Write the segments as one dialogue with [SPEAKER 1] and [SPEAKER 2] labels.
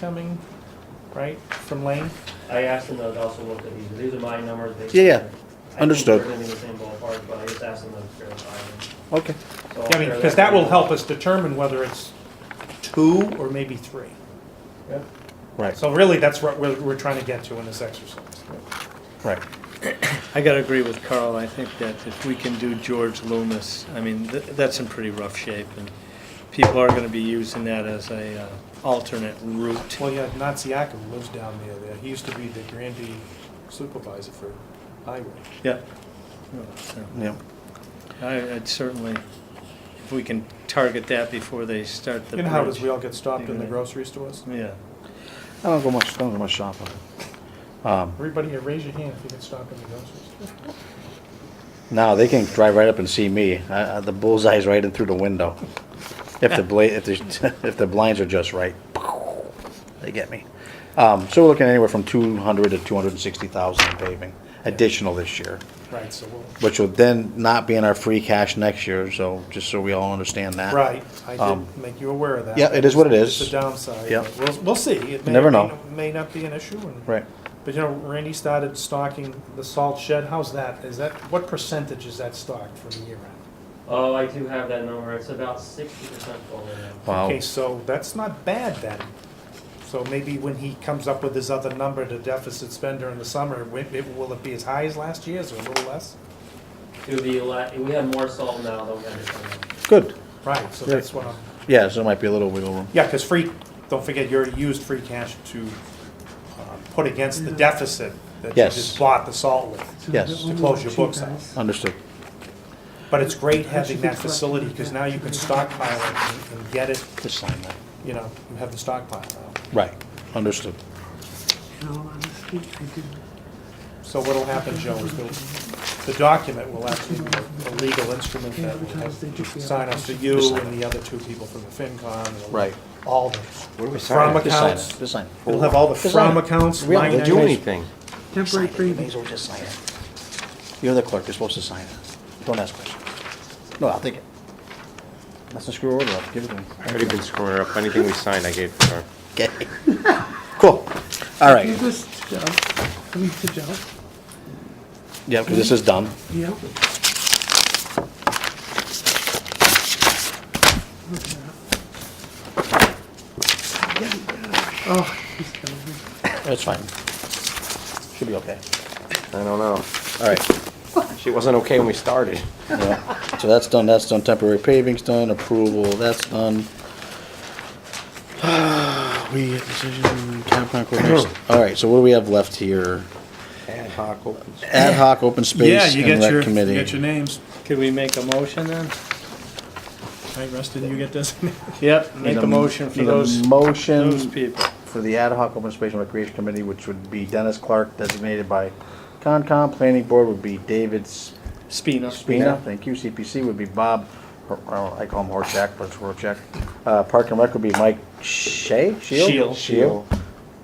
[SPEAKER 1] coming, right, from Lane?
[SPEAKER 2] I asked him to also look at these, these are my numbers. they-
[SPEAKER 3] Yeah, yeah.
[SPEAKER 2] I think
[SPEAKER 3] Understood.
[SPEAKER 2] they're in the same ballpark, but I just asked him to verify
[SPEAKER 3] Okay.
[SPEAKER 2] them. So I'll
[SPEAKER 1] Yeah, I mean,
[SPEAKER 2] share
[SPEAKER 1] because that will
[SPEAKER 2] with you.
[SPEAKER 1] help us determine whether it's two or maybe three.
[SPEAKER 2] Yeah.
[SPEAKER 3] Right,
[SPEAKER 1] So really, that's what we're, we're trying to get to in this exercise.
[SPEAKER 3] right.
[SPEAKER 4] I gotta agree with Carl, I think that if we can do George Loomis, I mean, th- that's in pretty rough shape, and people are gonna be using that as a uh, alternate route.
[SPEAKER 1] Well, yeah, Natsiak who lives down near there. He used to be the Granby supervisor for highway.
[SPEAKER 4] Yeah. So,
[SPEAKER 3] Yeah.
[SPEAKER 4] I- I'd certainly, if we can target that before they start the
[SPEAKER 1] You know how it is, we
[SPEAKER 4] bridge.
[SPEAKER 1] all get stopped in the grocery stores?
[SPEAKER 4] Yeah,
[SPEAKER 3] I don't go much, I don't go much shopping. Um,
[SPEAKER 1] Everybody here, raise your hand if you get stopped in the grocery store.
[SPEAKER 3] now they can drive right up and see me. Uh, the bullseye's right in through the window. If the bla, if the, if the blinds are just right, they get me. Um, so we're looking anywhere from two hundred to two hundred and sixty thousand in paving, additional this year,
[SPEAKER 1] Right, so we'll,
[SPEAKER 3] which will then not be in our free cash next year, so, just so we all understand that.
[SPEAKER 1] right, I
[SPEAKER 3] Um,
[SPEAKER 1] did make you aware of that.
[SPEAKER 3] yeah, it is what it
[SPEAKER 1] It's
[SPEAKER 3] is.
[SPEAKER 1] the downside.
[SPEAKER 3] Yeah.
[SPEAKER 1] We'll, we'll see. It may-
[SPEAKER 3] Never know.
[SPEAKER 1] May not be an issue. and-
[SPEAKER 3] Right.
[SPEAKER 1] But you know, Randy started stocking the salt shed. How's that? Is that, what percentage is that stocked from year end?
[SPEAKER 2] Oh, I do have that number, it's about sixty percent full now.
[SPEAKER 3] Wow.
[SPEAKER 1] Okay, so that's not bad then. So maybe when he comes up with his other number to deficit spend during the summer, wi- it- will it be as high as last year's or a little less?
[SPEAKER 2] It would be a lot, we have more salt now than we had this summer.
[SPEAKER 3] Good.
[SPEAKER 1] Right, so
[SPEAKER 3] Right.
[SPEAKER 1] that's what I'm,
[SPEAKER 3] Yeah, so it might be a little wiggle room.
[SPEAKER 1] yeah, because free, don't forget, you already used free cash to uh, put against the deficit that you
[SPEAKER 3] Yes.
[SPEAKER 1] just bought the salt with.
[SPEAKER 3] Yes.
[SPEAKER 1] To close your books out.
[SPEAKER 3] Understood.
[SPEAKER 1] But it's great having that facility, because now you can stockpile it and- and get it,
[SPEAKER 3] Just sign that.
[SPEAKER 1] you know, you have the stockpile now.
[SPEAKER 3] Right, understood.
[SPEAKER 5] In all honesty, I didn't.
[SPEAKER 1] So what'll happen, Joe, is the, the document will actually be a legal instrument that will have, sign off to you and the other two people from the FinCon. and it'll-
[SPEAKER 3] Right.
[SPEAKER 1] All those.
[SPEAKER 6] What do we
[SPEAKER 1] From
[SPEAKER 6] sign?
[SPEAKER 3] Just sign
[SPEAKER 1] accounts.
[SPEAKER 3] it, just sign it.
[SPEAKER 1] It'll have all the
[SPEAKER 3] Just sign
[SPEAKER 1] from
[SPEAKER 3] it.
[SPEAKER 1] accounts,
[SPEAKER 3] We don't
[SPEAKER 1] line
[SPEAKER 3] have
[SPEAKER 6] Didn't
[SPEAKER 3] to
[SPEAKER 6] do
[SPEAKER 1] items.
[SPEAKER 6] anything.
[SPEAKER 5] Temporary
[SPEAKER 3] You may as
[SPEAKER 5] freebies.
[SPEAKER 3] well just sign it. You're the clerk, you're supposed to sign it. Don't ask questions. No, I'll take it. That's a screw order up, give it to me.
[SPEAKER 6] I've already been screwing her up. Anything we signed, I gave to her.
[SPEAKER 3] Okay. Cool, all
[SPEAKER 5] Give
[SPEAKER 3] right.
[SPEAKER 5] this to Joe, I mean to Joe,
[SPEAKER 3] Yeah, because this is done.
[SPEAKER 5] yeah. Oh, he's killing me.
[SPEAKER 3] That's fine. Should be okay.
[SPEAKER 6] I don't know.
[SPEAKER 3] All right.
[SPEAKER 6] She wasn't okay when we started.
[SPEAKER 3] Yeah. So that's done, that's done, temporary paving's done, approval, that's done. We, decision, town plan coordination. All right, so what do we have left here?
[SPEAKER 6] Ad hoc open.
[SPEAKER 3] Ad hoc,
[SPEAKER 1] Yeah,
[SPEAKER 3] open space,
[SPEAKER 1] you
[SPEAKER 3] and
[SPEAKER 1] get your,
[SPEAKER 3] rec
[SPEAKER 1] you get your
[SPEAKER 3] committee.
[SPEAKER 1] names.
[SPEAKER 4] could we make a motion then?
[SPEAKER 1] Right, Rustin, you get designated.
[SPEAKER 4] Yep,
[SPEAKER 3] Need
[SPEAKER 4] make a motion for
[SPEAKER 3] need a
[SPEAKER 4] those, those
[SPEAKER 3] Motion
[SPEAKER 4] people.
[SPEAKER 3] for the ad hoc open space and recreation committee, which would be Dennis Clark designated by Concom, planning board would be David
[SPEAKER 4] Spina.
[SPEAKER 3] Spina, thank you, CPC would be Bob, Hor- oh, I call him Horchak, but it's Horchak. Uh, Park and Rec would be Mike Shea, Shield?
[SPEAKER 4] Shield.
[SPEAKER 3] Shield.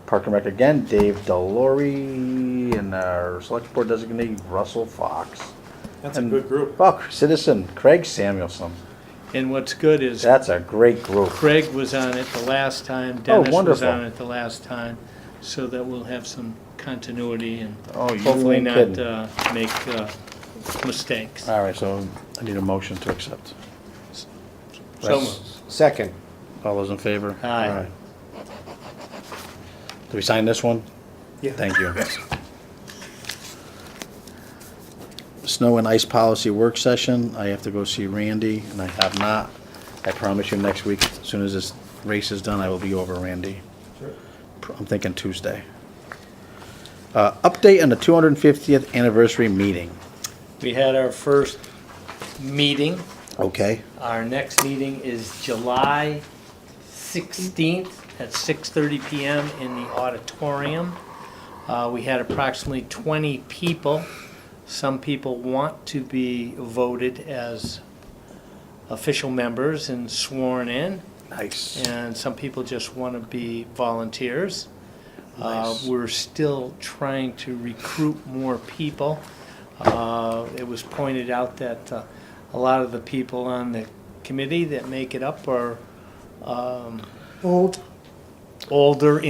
[SPEAKER 3] Park and Rec again, Dave Delory, and our select board designate Russell Fox.
[SPEAKER 1] That's a good group.
[SPEAKER 3] Oh, citizen Craig Samuelson,
[SPEAKER 4] And what's good is
[SPEAKER 3] that's a great group.
[SPEAKER 4] Craig was on it the last time, Dennis was
[SPEAKER 3] wonderful.
[SPEAKER 4] on it the last time, so that we'll have some continuity and
[SPEAKER 3] Oh, you
[SPEAKER 4] hopefully
[SPEAKER 3] ain't
[SPEAKER 4] not
[SPEAKER 3] kidding.
[SPEAKER 4] uh, make uh, mistakes.
[SPEAKER 3] All right, so I need a motion to accept.
[SPEAKER 4] So
[SPEAKER 3] Yes.
[SPEAKER 4] moved.
[SPEAKER 6] Second.
[SPEAKER 3] All those in favor?
[SPEAKER 4] Aye.
[SPEAKER 3] All right. Do we sign this one?
[SPEAKER 1] Yeah.
[SPEAKER 3] Thank you. Snow and ice policy work session, I have to go see Randy, and I have not. I promise you, next week, as soon as this race is done, I will be over Randy. Pr- I'm thinking Tuesday. Uh, update on the two hundred and fiftieth anniversary meeting,
[SPEAKER 4] We had our first meeting.
[SPEAKER 3] okay?
[SPEAKER 4] Our next meeting is July 16th at 6:30 PM in the auditorium. Uh, We had approximately 20 people. Some people want to be voted as official members and sworn in,
[SPEAKER 3] Nice.
[SPEAKER 4] and some people just want to be volunteers. Uh,
[SPEAKER 3] Nice.
[SPEAKER 4] We're still trying to recruit more people. Uh, It was pointed out that uh, a lot of the people on the committee that make it up are um,
[SPEAKER 5] Old
[SPEAKER 4] older